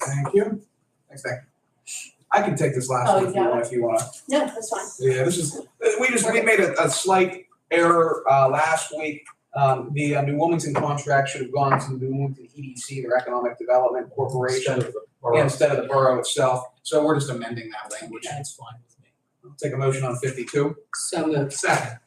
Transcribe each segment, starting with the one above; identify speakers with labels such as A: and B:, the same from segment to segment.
A: Thank you. Thanks, thank you. I can take this last
B: Oh,
A: one if you
B: yeah.
A: want, if you want.
B: No, that's fine.
A: Yeah, this is, we just, we made a, a slight error, uh, last week. Um, the uh, New Wilmington contract should have gone to the New Wilmington EDC, their Economic Development Corporation,
C: Instead of the
A: yeah,
C: borough.
A: instead of the borough itself. So we're just amending that language.
C: That's fine with me.
A: Take a motion on fifty-two.
D: So moved.
A: Second.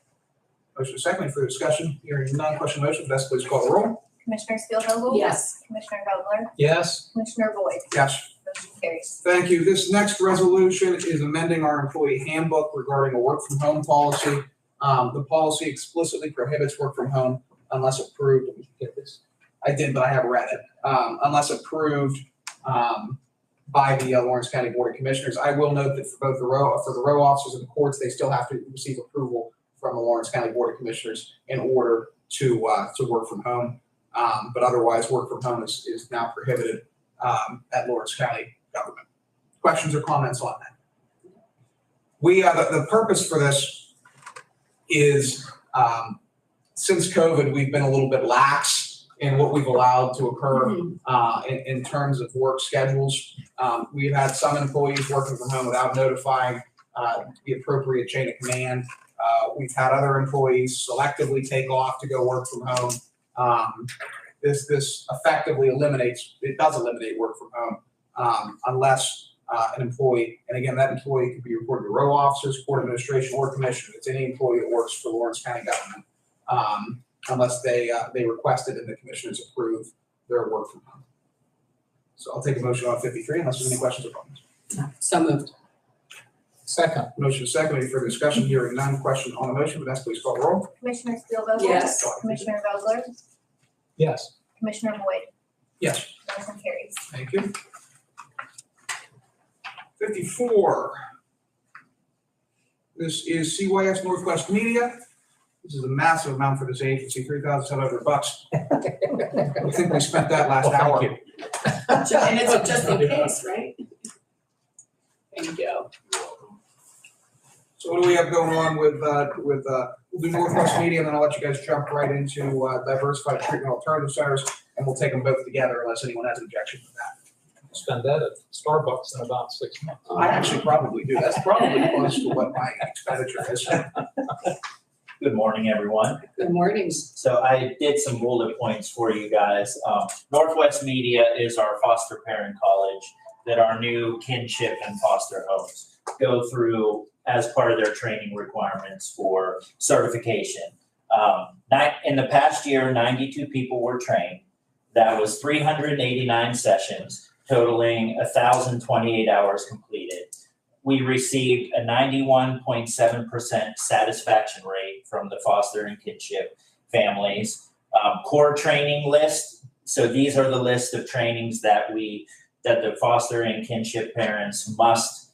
A: Motion second for discussion. Hearing none, question on motion, Vanessa please call the roll.
E: Commissioner Spielvogel?
B: Yes.
E: Commissioner Vogler?
C: Yes,
E: Commissioner Boyd?
A: Yes.
E: Motion carries.
A: Thank you. This next resolution is amending our employee handbook regarding a work from home policy. Um, the policy explicitly prohibits work from home unless approved. Let me get this. I did, but I have read it. Um, unless approved, um, by the uh, Lawrence County Board of Commissioners. I will note that for both the row, for the row officers and the courts, they still have to receive approval from the Lawrence County Board of Commissioners in order to, uh, to work from home. Um, but otherwise, work from home is, is now prohibited, um, at Lawrence County government questions or comments on that? We, uh, the, the purpose for this is, um, since COVID, we've been a little bit lax in what we've allowed to occur, uh, in, in terms of work schedules. Um, we've had some employees working from home without notifying, uh, the appropriate chain of command. Uh, we've had other employees selectively take off to go work from home. Um, this, this effectively eliminates, it does eliminate work from home, um, unless uh, an employee, and again, that employee could be reported to row officers, court administration, or commission. It's any employee that works for Lawrence County government, um, unless they, uh, they request it and the commissioners approve their work from home. So I'll take a motion on fifty-three unless there's any questions or comments.
D: So moved.
C: second,
A: Motion is second, any further discussion, hearing none, question on the motion, Vanessa please call the roll.
E: Commissioner Spielvogel?
D: Yes.
E: Commissioner Vogler?
C: yes,
E: Commissioner Boyd?
A: Yes.
E: Motion carries.
A: Thank you. Fifty-four. This is CYS Northwest Media. This is a massive amount for this agency, three thousand seven hundred bucks. I think we spent that last
C: Well, thank
A: hour.
C: you.
D: Ju- And it's just in case, right? Thank you.
A: So what do we have going on with, uh, with, uh, we'll do Northwest Media, and then I'll let you guys jump right into, uh, diversified treatment alternative centers, and we'll take them both together unless anyone has an objection to that.
C: spend that at Starbucks in about six months.
A: I actually probably do. That's probably close to what my expenditure is.
F: Good morning, everyone.
D: Good mornings.
F: So I did some bullet points for you guys. Um, Northwest Media is our foster parent college that our new kinship and foster homes go through as part of their training requirements for certification. Um, ni- in the past year, ninety-two people were trained. That was three hundred and eighty-nine sessions totaling thousand twenty-eight hours completed we received a ninety-one point seven percent satisfaction rate from the foster and kinship families. Um, core training list, so these are the list of trainings that we, that the foster and kinship parents must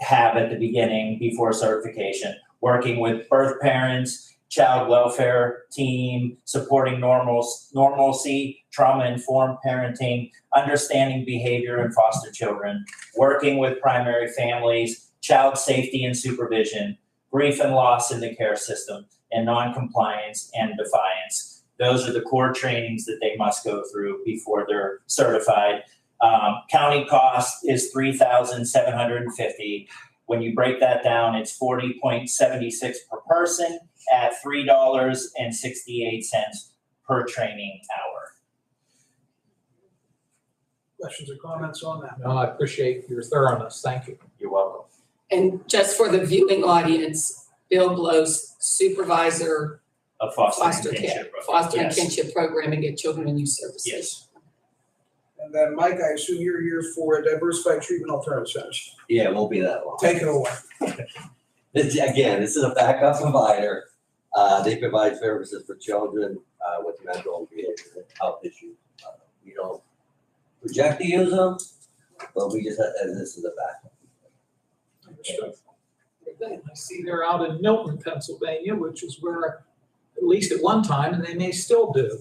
F: have at the beginning before certification, working with birth parents, child welfare team, supporting normal, normalcy, trauma-informed parenting, understanding behavior in foster children, working with primary families, child safety and supervision, grief and loss in the care system, and noncompliance and defiance. Those are the core trainings that they must go through before they're certified. Um, county cost is three thousand seven hundred and fifty. When you break that down, it's forty point seventy six per person at three dollars and sixty eight cents per training hour.
A: Questions or comments on that?
C: No, I appreciate your thoroughness, thank you.
F: You're welcome.
D: And just for the viewing audience, Bill Blow's supervisor,
F: A foster and
D: Foster care,
F: kinship program.
D: foster and
F: Yes.
D: kinship programming at Children and Youth Services.
F: Yes.
A: And then, Mike, I assume you're here for diversified treatment alternative centers.
G: Yeah, it won't be that long.
A: Take it away.
G: This, again, this is a backup provider. Uh, they provide services for children, uh, with mental and behavioral health issues. Uh, We don't project to use them, but we just, and this is a backup.
C: I see they're out in Milton, Pennsylvania, which is where, at least at one time, and they may still do,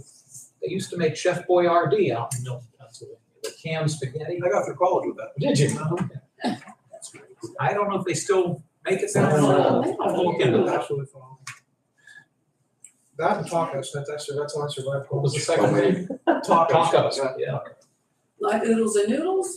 C: they used to make Chef Boyardee out in Milton, Pennsylvania, the canned spaghetti.
A: I got through college with that.
C: Did you? Oh, I don't know if they still make it down.
D: Oh, wow.
C: I'll look into that.
A: Absolutely phenomenal. That and tacos, that's actually, that's how I survived.
C: What was the
A: college.
C: second name?
A: Tacos.
C: Tacos, yeah.
D: Like oodles and noodles?